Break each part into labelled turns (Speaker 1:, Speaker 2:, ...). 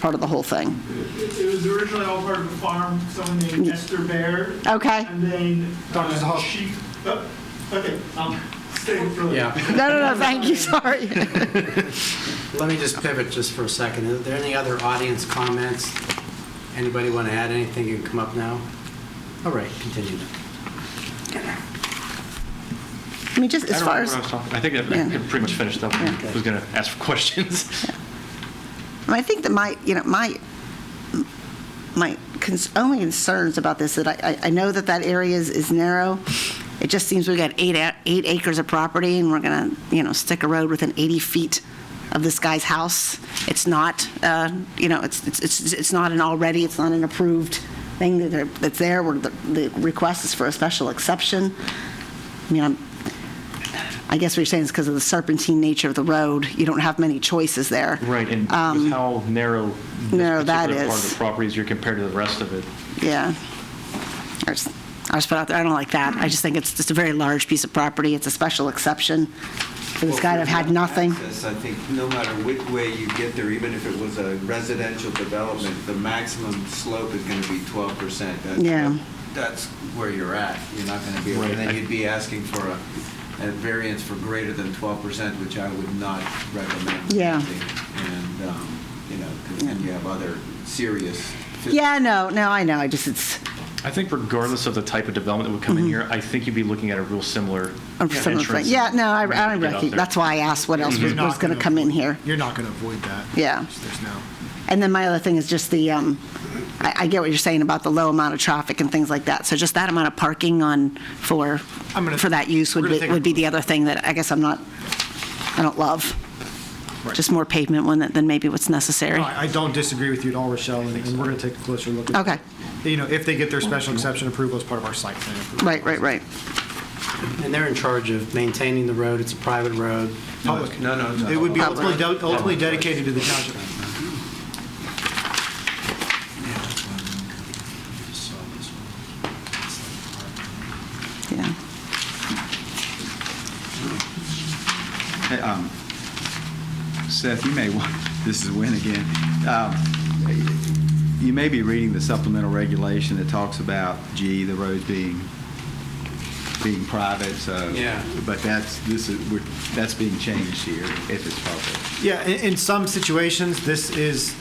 Speaker 1: part of the whole thing.
Speaker 2: It it was originally all part of a farm, someone named Esther Bear,
Speaker 1: Okay?
Speaker 2: and then
Speaker 3: Dr.
Speaker 2: uh,
Speaker 3: Zahal.
Speaker 2: sheep. oh, Okay, I'm staying for later.
Speaker 3: Yeah,
Speaker 1: No, no, no, thank you, sorry.
Speaker 3: let me just pivot just for a second. Are there any other audience comments? Anybody want to add anything? You can come up now. All right, continue.
Speaker 1: I mean, just as
Speaker 4: I don't
Speaker 1: far as,
Speaker 4: remember what I
Speaker 1: I
Speaker 4: was talking- I think I
Speaker 1: Yeah.
Speaker 4: I pretty much finished up.
Speaker 1: Yeah.
Speaker 4: I was going to ask for questions.
Speaker 1: mean, I think that my, you know, my, my cons- only concerns about this, that I, I- I know that that area is, is narrow. It just seems we got eight, a- eight acres of property, and we're gonna, you know, stick a road within 80 feet of this guy's house. It's not, uh, you know, it's, it's, it's it's not an already, it's not an approved thing that they're- that's there, where the, the request is for a special exception. I mean, I'm, I guess what you're saying is because of the serpentine nature of the road, you don't have many choices there.
Speaker 4: Right, and
Speaker 1: Um,
Speaker 4: with how narrow
Speaker 1: narrow
Speaker 4: this
Speaker 1: that
Speaker 4: particular part of
Speaker 1: is.
Speaker 4: the property is, you're compared to the rest of it.
Speaker 1: Yeah. I just, I just put out there, I don't like that. I just think it's just a very large piece of property. It's a special exception for this guy to have had nothing.
Speaker 5: Access, I think no matter which way you get there, even if it was a residential development, the maximum slope is going to be 12%. That's-
Speaker 1: Yeah.
Speaker 5: That's where you're at. You're not going to be,
Speaker 4: Right.
Speaker 5: and then you'd be asking for a a variance for greater than 12%, which I would not recommend.
Speaker 1: Yeah.
Speaker 5: And, um, you know, 'cause then you have other serious. phys-
Speaker 1: Yeah, no, no, I know, I just, it's,
Speaker 4: I think regardless of the type of development that would come in
Speaker 1: Mm-hmm.
Speaker 4: here, I think you'd be looking at a real similar
Speaker 1: I'm familiar with it.
Speaker 4: entrance.
Speaker 1: yeah, no, I,
Speaker 4: when you
Speaker 1: I
Speaker 4: get out
Speaker 1: reckon,
Speaker 4: there.
Speaker 1: that's why I asked what else was
Speaker 6: You're not
Speaker 1: going to
Speaker 6: gonna
Speaker 1: come in
Speaker 6: avoid-
Speaker 1: here.
Speaker 6: You're not going to avoid that.
Speaker 1: Yeah.
Speaker 6: There's no.
Speaker 1: And then my other thing is just the, um, I, I get what you're saying about the low amount of traffic and things like that. So just that amount of parking on, for,
Speaker 6: I'm gonna-
Speaker 1: for that use would
Speaker 6: we're gonna
Speaker 1: be,
Speaker 6: take a-
Speaker 1: would be the other thing that I guess I'm not, I don't love.
Speaker 6: Right. Oh,
Speaker 1: Just more pavement one than than maybe what's necessary.
Speaker 6: No, I I don't disagree with you at all, Rochelle, and and we're going to take a closer look. at-
Speaker 1: Okay.
Speaker 6: You know, if they get their special exception approval as part of our site plan. approval.
Speaker 1: Right, right, right.
Speaker 3: And they're in charge of maintaining the road. It's a private road.
Speaker 6: Public.
Speaker 5: No, no, no.
Speaker 6: It would be
Speaker 1: Public.
Speaker 6: ultimately de- ultimately dedicated to the township.
Speaker 5: Um,
Speaker 1: Yeah.
Speaker 7: Hey, um, Seth, you may, want this is Win again. Um, You may be reading the supplemental regulation that talks about, gee, the roads being, being private, so.
Speaker 5: Yeah.
Speaker 7: But that's, this is, we're- that's being changed here if it's public.
Speaker 6: Yeah, in, in some situations, this is,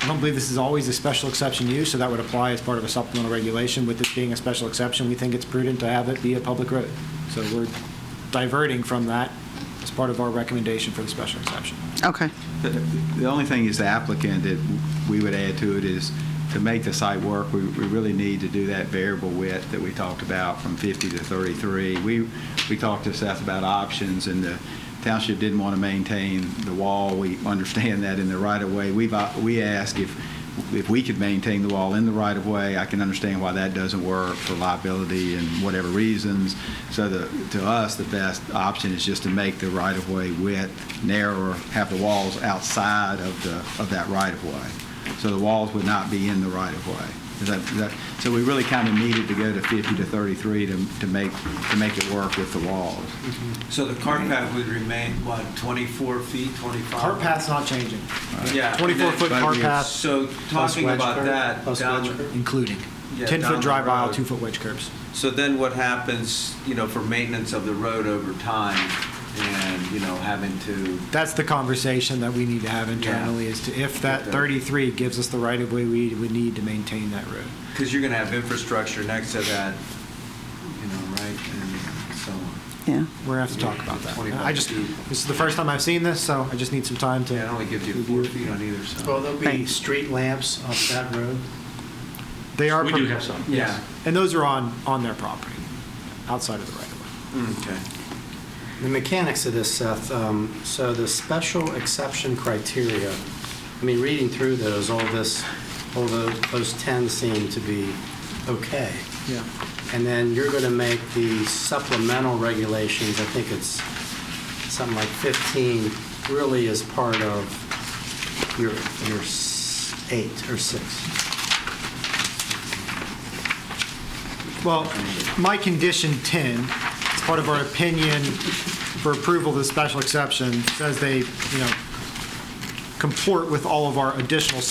Speaker 6: I don't believe this is always a special exception use, so that would apply as part of a supplemental regulation. With this being a special exception, we think it's prudent to have it be a public road. So we're diverting from that as part of our recommendation for the special exception.
Speaker 1: Okay.
Speaker 7: The the only thing is the applicant that we would add to it is to make the site work, we we really need to do that variable width that we talked about from 50 to 33. We, we talked to Seth about options and the township didn't want to maintain the wall. We understand that in the right of way. We've, uh, we asked if, if we could maintain the wall in the right of way. I can understand why that doesn't work for liability and whatever reasons. So the, to us, the best option is just to make the right of way width narrower, have the walls outside of the, of that right of way. So the walls would not be in the right of way. Is that, is that, so we really kind of needed to go to 50 to 33 to, to make, to make it work with the walls.
Speaker 5: So the cart path would remain, what, 24 feet, 25?
Speaker 6: Cart path's not changing.
Speaker 5: Yeah.
Speaker 6: 24-foot
Speaker 7: But
Speaker 6: cart
Speaker 7: we-
Speaker 6: path,
Speaker 5: So
Speaker 3: Plus
Speaker 5: talking
Speaker 3: wedge
Speaker 5: about
Speaker 3: curve,
Speaker 5: that,
Speaker 3: plus
Speaker 5: down-
Speaker 3: wedge curve.
Speaker 6: including
Speaker 5: Yeah,
Speaker 6: 10-foot
Speaker 5: down
Speaker 6: drive
Speaker 5: the
Speaker 6: aisle,
Speaker 5: road.
Speaker 6: two-foot wedge curbs.
Speaker 5: so then what happens, you know, for maintenance of the road over time and, you know, having to,
Speaker 6: That's the conversation that we need to have internally, is to if that
Speaker 5: Okay.
Speaker 6: 33 gives us the right-of-way we would need to maintain that road.
Speaker 5: because you're going to have infrastructure next to that, you know, right? And so on.
Speaker 1: Yeah.
Speaker 6: We're gonna have to talk about that.
Speaker 5: 25
Speaker 6: I just,
Speaker 5: feet.
Speaker 6: this is the first time I've seen this, so I just need some time to.
Speaker 5: Yeah, it only gives you four feet on either
Speaker 3: Well,
Speaker 5: side.
Speaker 3: there'll be
Speaker 1: Thanks.
Speaker 3: street lamps off that road.
Speaker 6: They are.
Speaker 4: We
Speaker 6: pro-
Speaker 4: do have some.
Speaker 5: Yeah.
Speaker 6: And those are on, on their property, outside of the right-of-way.
Speaker 5: Mm, Okay.
Speaker 3: The mechanics of this, Seth, um, so the special exception criteria, I mean, reading through those, all this, all those, those 10 seem to be okay.
Speaker 6: Yeah.
Speaker 3: And then you're going to make the supplemental regulations, I think it's something like 15, really is part of your, your s- eight or six.
Speaker 6: Well, my condition 10, it's part of our opinion for approval of the special exception, says they, you know, comport with all of our additional